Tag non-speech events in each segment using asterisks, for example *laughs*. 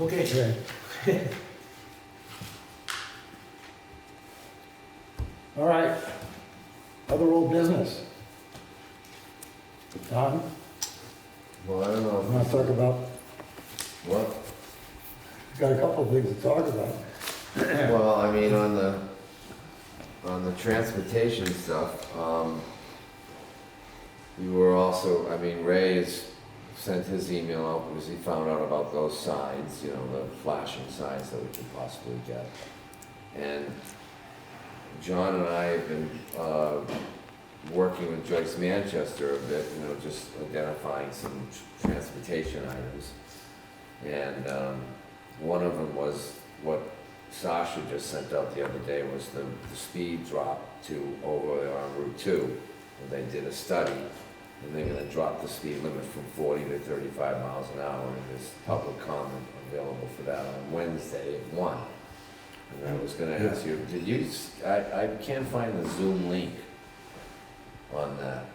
Okay, Okay. *laughs* All right, other old business. Don, Well, I don't I'm gonna know. talk about, What? got a couple of things to talk about. Well, I mean, on the, on the transportation stuff, um, we were also, I mean, Ray has sent his email out because he found out about those signs, you know, the flashing signs that we could possibly get. And John and I have been, uh, working with Joyce Manchester a bit, you know, just identifying some transportation items. And, um, one of them was what Sasha just sent out the other day was the, the speed drop to over on Route Two. And they did a study, and they're gonna drop the speed limit from forty to thirty-five miles an hour, and there's public comment available for that on Wednesday at one. And I was gonna ask you, did you, s- I, I can't find the Zoom link on that.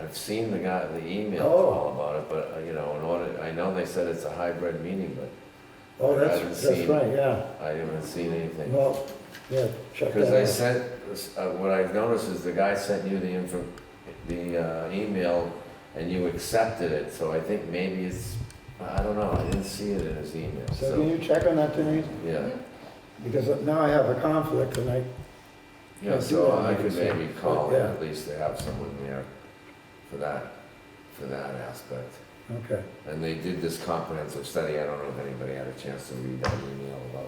I've seen the guy, the email Oh. all about it, but, uh, you know, in order, I know they said it's a hybrid meeting, but Oh, I haven't that's, that's seen- right, yeah, I haven't seen anything. well, yeah, check Because I that out. sent, uh, what I've noticed is the guy sent you the info, the uh, email, and you accepted it, so I think maybe it's, I don't know, I didn't see it in his email, So can so, you check on that, Denise? yeah. Because now I have a conflict and I, Yeah, do so that, I I could can see. maybe call it, Yeah. at least to have someone there for that, for that aspect. okay, And they did this comprehensive study, I don't know if anybody had a chance to read that email about,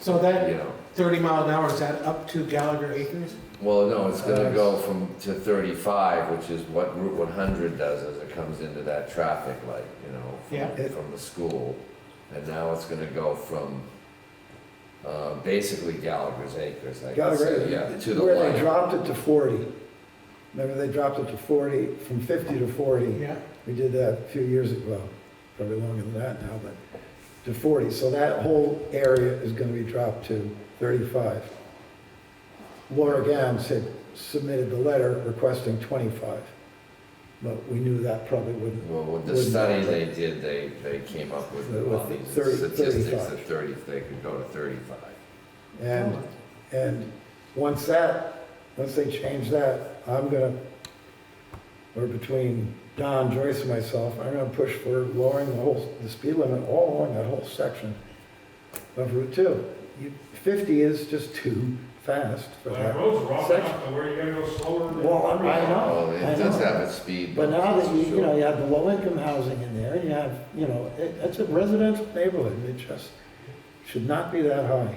so that you know. thirty mile an hour, is that up to Gallagher Acres? Well, no, it's gonna Uh, go from, to thirty-five, which is what Route one hundred does, is it comes into that traffic light, you know, Yeah. from, from the school. And now it's gonna go from, uh, basically Gallagher's Acres, I guess, Gallagher, yeah, to the where they line. dropped it to forty. Remember, they dropped it to forty, from fifty to forty. Yeah, We did that a few years ago, probably longer than that now, but to 40. So that whole area is going to be dropped to 35. Laura Gams had submitted the letter requesting 25, but we knew that probably wouldn't. Well, with the Wouldn't study matter. they did, they, they came up with With all the these 30 statistics 35. that thirty, they could go to thirty-five. And, and once that, once they change that, I'm going to, or between Don, Joyce, and myself, I'm going to push for lowering the whole, the speed limit all along that whole section. of Route 2. You- 50 is just too fast for Well, the that. roads are all Section. enough to where you gotta go slower than. Well, I know. Well, I it does know. have its speed. But now bumps, that you, for you know, sure. you have the low-income housing in there, you have, you know, it- it's a residential neighborhood, it just should not be that high.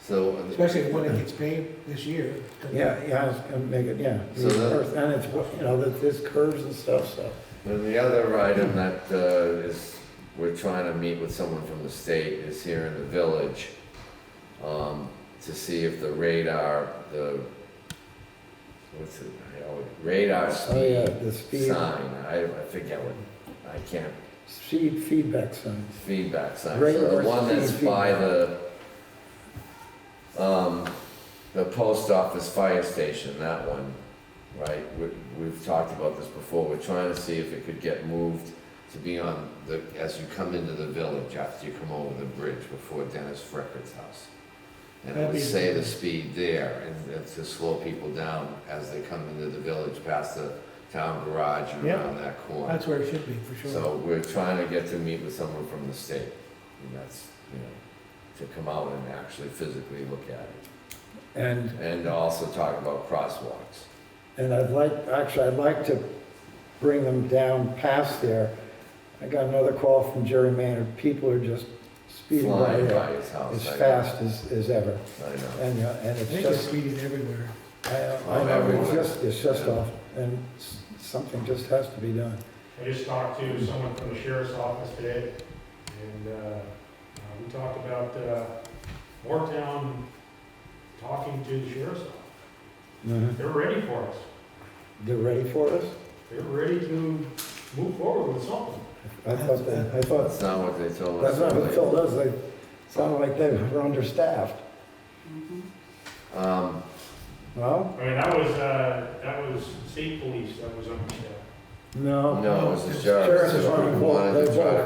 So. uh, especially when it gets paved this year. 'cause- Yeah, yeah, it's gonna make it, yeah. So the- And it's, you know, that there's curves and stuff, so. uh, And the other item that uh, is, we're trying to meet with someone from the state is here in the village um, to see if the radar, the, what's it, I always- radar Oh, yeah, speed the speed, sign, I I forget what, I can't, speed feedback signs. feedback sign. So Radar the one that's speed by feedback. the, um, the post office fire station, that one, right? We, we've talked about this before, we're trying to see if it could get moved to be on the, as you come into the village, after you come over the bridge before Dennis Frickert's house. And it That'd would be- say the speed there, and it's to slow people down as they come into the village, past the town garage and Yeah. around that corner. That's where it should be, for sure. So we're trying to get to meet with someone from the state, and that's, you know, to come out and actually physically look at it. And And also talk about crosswalks. And I'd like, actually, I'd like to bring them down past there. I got another call from Jerry Maynard, people are just speeding by Flying there by his house. as I know, fast as, as ever. I know. And, uh, and I it's think it's just, speeding everywhere. I, I Oh, know, it's everywhere. just, it's just Yeah. off, and s- something just has to be done. I just talked to someone from the sheriff's office today, and, uh, uh, we talked about, uh, Moretown talking to the sheriff's office. Mm-hmm. They're ready for us. They're ready for us? They're ready to move forward with something. I thought, that- I thought, That's not what they told that's us. not what earlier. they told us, they sounded like they were understaffed. Um, Well, I mean, that was, uh, that was state police that was on the show. no. no, it was the Sheriff sheriff, is so running we full- wanted they're to try to both